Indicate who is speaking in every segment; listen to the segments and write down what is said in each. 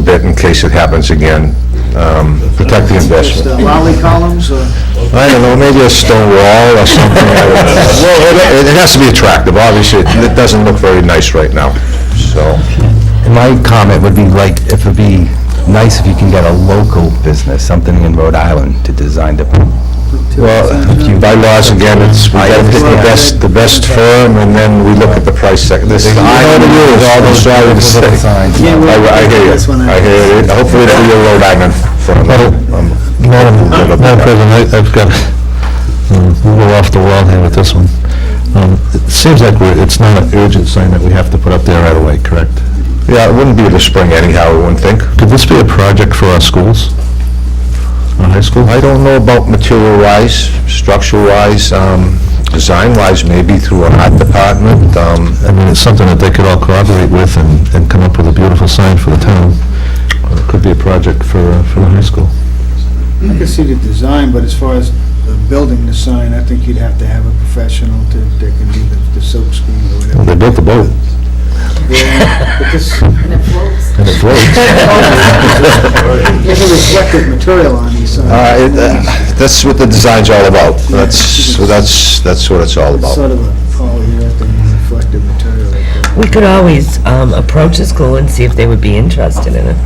Speaker 1: bit in case it happens again. Um, Protect the
Speaker 2: Just uh,
Speaker 1: investment.
Speaker 2: lolly columns, uh, or
Speaker 1: I don't know, maybe a stone wall or something. I don't know. Well, it- it has to be attractive, obviously, it doesn't look very nice right now, so.
Speaker 3: My comment would be like, if it'd be nice if you can get a local business, something in Rhode Island to design the,
Speaker 1: Well, by laws, again, it's, we gotta pick the best, the best firm, and then we look at the price second. This is, I know the rules, all those drivers.
Speaker 3: Little signs.
Speaker 1: I
Speaker 3: Yeah,
Speaker 2: we're-
Speaker 1: I hear you,
Speaker 2: that's when I-
Speaker 1: I hear it, hopefully it'll be a Rhode Island firm. Um,
Speaker 4: Madam Madam President, I- I've got, um, we'll go off the wall here with this one. Um, It seems like we're, it's not an urgent sign that we have to put up there right away, correct?
Speaker 1: Yeah, it wouldn't be the spring anyhow, I wouldn't think.
Speaker 4: Could this be a project for our schools? Our high school?
Speaker 1: I don't know about material-wise, structure-wise, um, design-wise, maybe through an art department, um,
Speaker 4: I mean, it's something that they could all collaborate with and, and come up with a beautiful sign for the town. It could be a project for, uh, for the high school.
Speaker 2: I can see the design, but as far as the building the sign, I think you'd have to have a professional to, that can do the the silk screen or
Speaker 4: Well,
Speaker 2: whatever.
Speaker 4: They built the boat.
Speaker 2: Yeah, but this,
Speaker 5: And it floats.
Speaker 4: And it floats.
Speaker 2: there's a reflective material on these
Speaker 1: Uh,
Speaker 2: signs.
Speaker 1: it, uh, That's what the design's all about. That's, that's, that's what it's all about.
Speaker 2: Sort of a polyurethane reflective material. like that.
Speaker 6: We could always um, approach the school and see if they would be interested in it.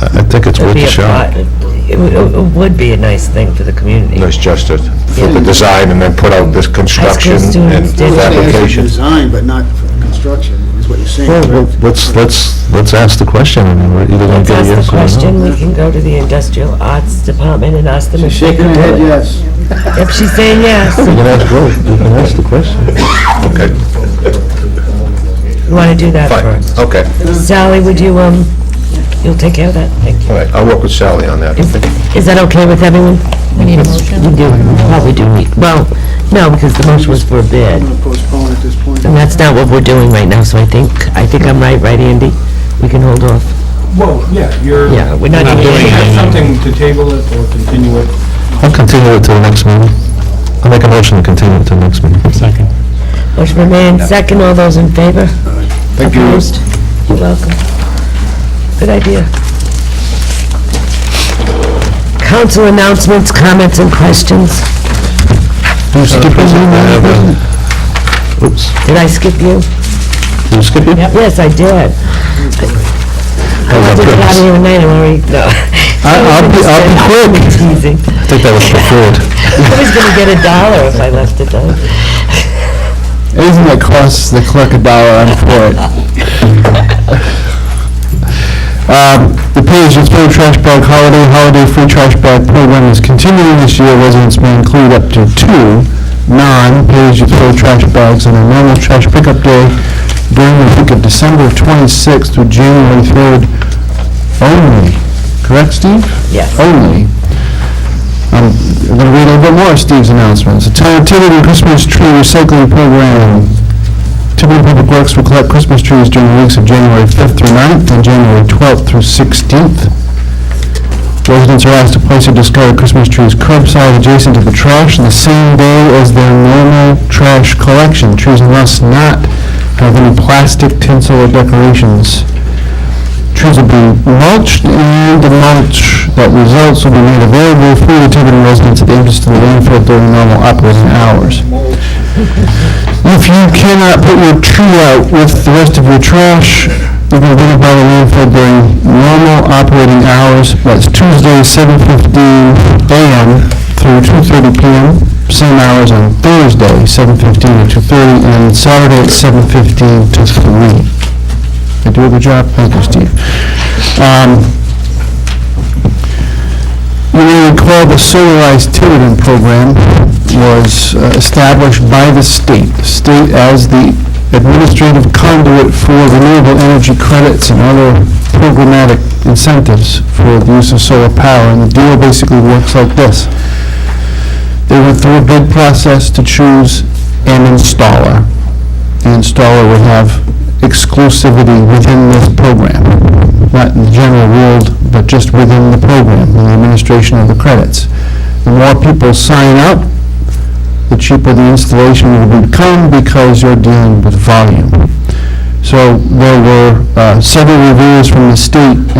Speaker 4: I I think it's
Speaker 6: It'd
Speaker 4: worth
Speaker 6: be
Speaker 4: a
Speaker 6: a
Speaker 4: shot.
Speaker 6: pot- It would- it would be a nice thing for the community.
Speaker 1: It's just to put the design and then put out this construction and
Speaker 6: students did.
Speaker 1: fabrication.
Speaker 2: Design, but not for construction, is what you're saying,
Speaker 4: Well, well,
Speaker 2: correct?
Speaker 4: let's, let's, let's ask the question, and we're either going to
Speaker 6: Let's
Speaker 4: get a
Speaker 6: ask the
Speaker 4: yes uh-huh. or a no.
Speaker 6: question, we can go to the industrial arts department and ask them
Speaker 2: She's
Speaker 6: if they
Speaker 2: shaking her
Speaker 6: can do
Speaker 2: head,
Speaker 6: it.
Speaker 2: yes.
Speaker 6: If she's saying yes,
Speaker 4: You can ask both, you can ask the question.
Speaker 1: Okay,
Speaker 6: we want to do that
Speaker 1: fine,
Speaker 6: first.
Speaker 1: okay.
Speaker 6: Sally, would you, um, you'll take care of that? Thank you.
Speaker 1: All right, I'll work with Sally on that.
Speaker 6: Is is that okay with everyone? We need a motion? You do, you probably do need, well, no, because the motion was for a
Speaker 2: I'm
Speaker 6: bid.
Speaker 2: gonna postpone at this point.
Speaker 6: And that's not what we're doing right now, so I think, I think I'm right, right, Andy? We can hold off.
Speaker 7: Well, Oh, yeah, you're,
Speaker 6: Yeah, we're not
Speaker 7: you
Speaker 6: doing
Speaker 7: have
Speaker 6: anything.
Speaker 7: something to table it or continue it.
Speaker 4: I'll continue it to the next meeting. I'll make a motion to continue it to the next meeting. Second.
Speaker 6: Motion for May and second, all those in favor? Thank you. You're welcome. Good idea. Council announcements, comments, and questions.
Speaker 4: You
Speaker 3: Uh,
Speaker 4: skip your name, Madam President? Oops,
Speaker 6: Did I skip you?
Speaker 4: you skip it?
Speaker 6: Yes, I did. I
Speaker 4: Oh,
Speaker 6: wanted to get out of here tonight, I'm already, no.
Speaker 4: I- I'll be- I'll be
Speaker 6: I'm
Speaker 4: quick.
Speaker 6: Teasing.
Speaker 4: I think that was preferred.
Speaker 6: I was gonna get a dollar if I left it though.
Speaker 3: Isn't it costs the clerk a dollar, I'm for it. Um, The Page and Spade Trash Bag Holiday, Holiday Free Trash Bag Program is continuing this year. Residents may include up to two non-Page and Spade trash bags on a normal trash pickup day during the week of December 26th through January 3rd only. Correct, Steve?
Speaker 6: Yes.
Speaker 3: Only. Um, I'm going to read a little bit more of Steve's announcements. The town of Tiverton Christmas Tree Recycling Program. Tiverton Public Works will collect Christmas trees during the weeks of January 5th through 9th and January 12th through 16th. Residents are asked to place their discarded Christmas trees curbside adjacent to the trash on the same day as their normal trash collection. Trees must not have any plastic, tinsel, or decorations. Trees will be mulched, and the mulch that results will be made available for the Tiverton residents at the entrance to the landfill during normal operating hours. If you cannot put your tree out with the rest of your trash, you can bring it by the landfill during normal operating hours. That's Tuesday, 7:15 a.m. through 2:30 p.m., same hours on Thursday, 7:15 to 2:30, and Saturday, 7:15 to 3. I do a good job? Thank you, Steve. Um, You may recall the Solarized Tiverton Program was uh, established by the state, the state as the administrative conduit for renewable energy credits and other programmatic incentives for the use of solar power. And the deal basically works like this. They went through a bid process to choose an installer. The installer would have exclusivity within this program, not in the general world, but just within the program, and the administration of the credits. The more people sign up, the cheaper the installation will become because you're dealing with volume. So there were uh, several reviews from the state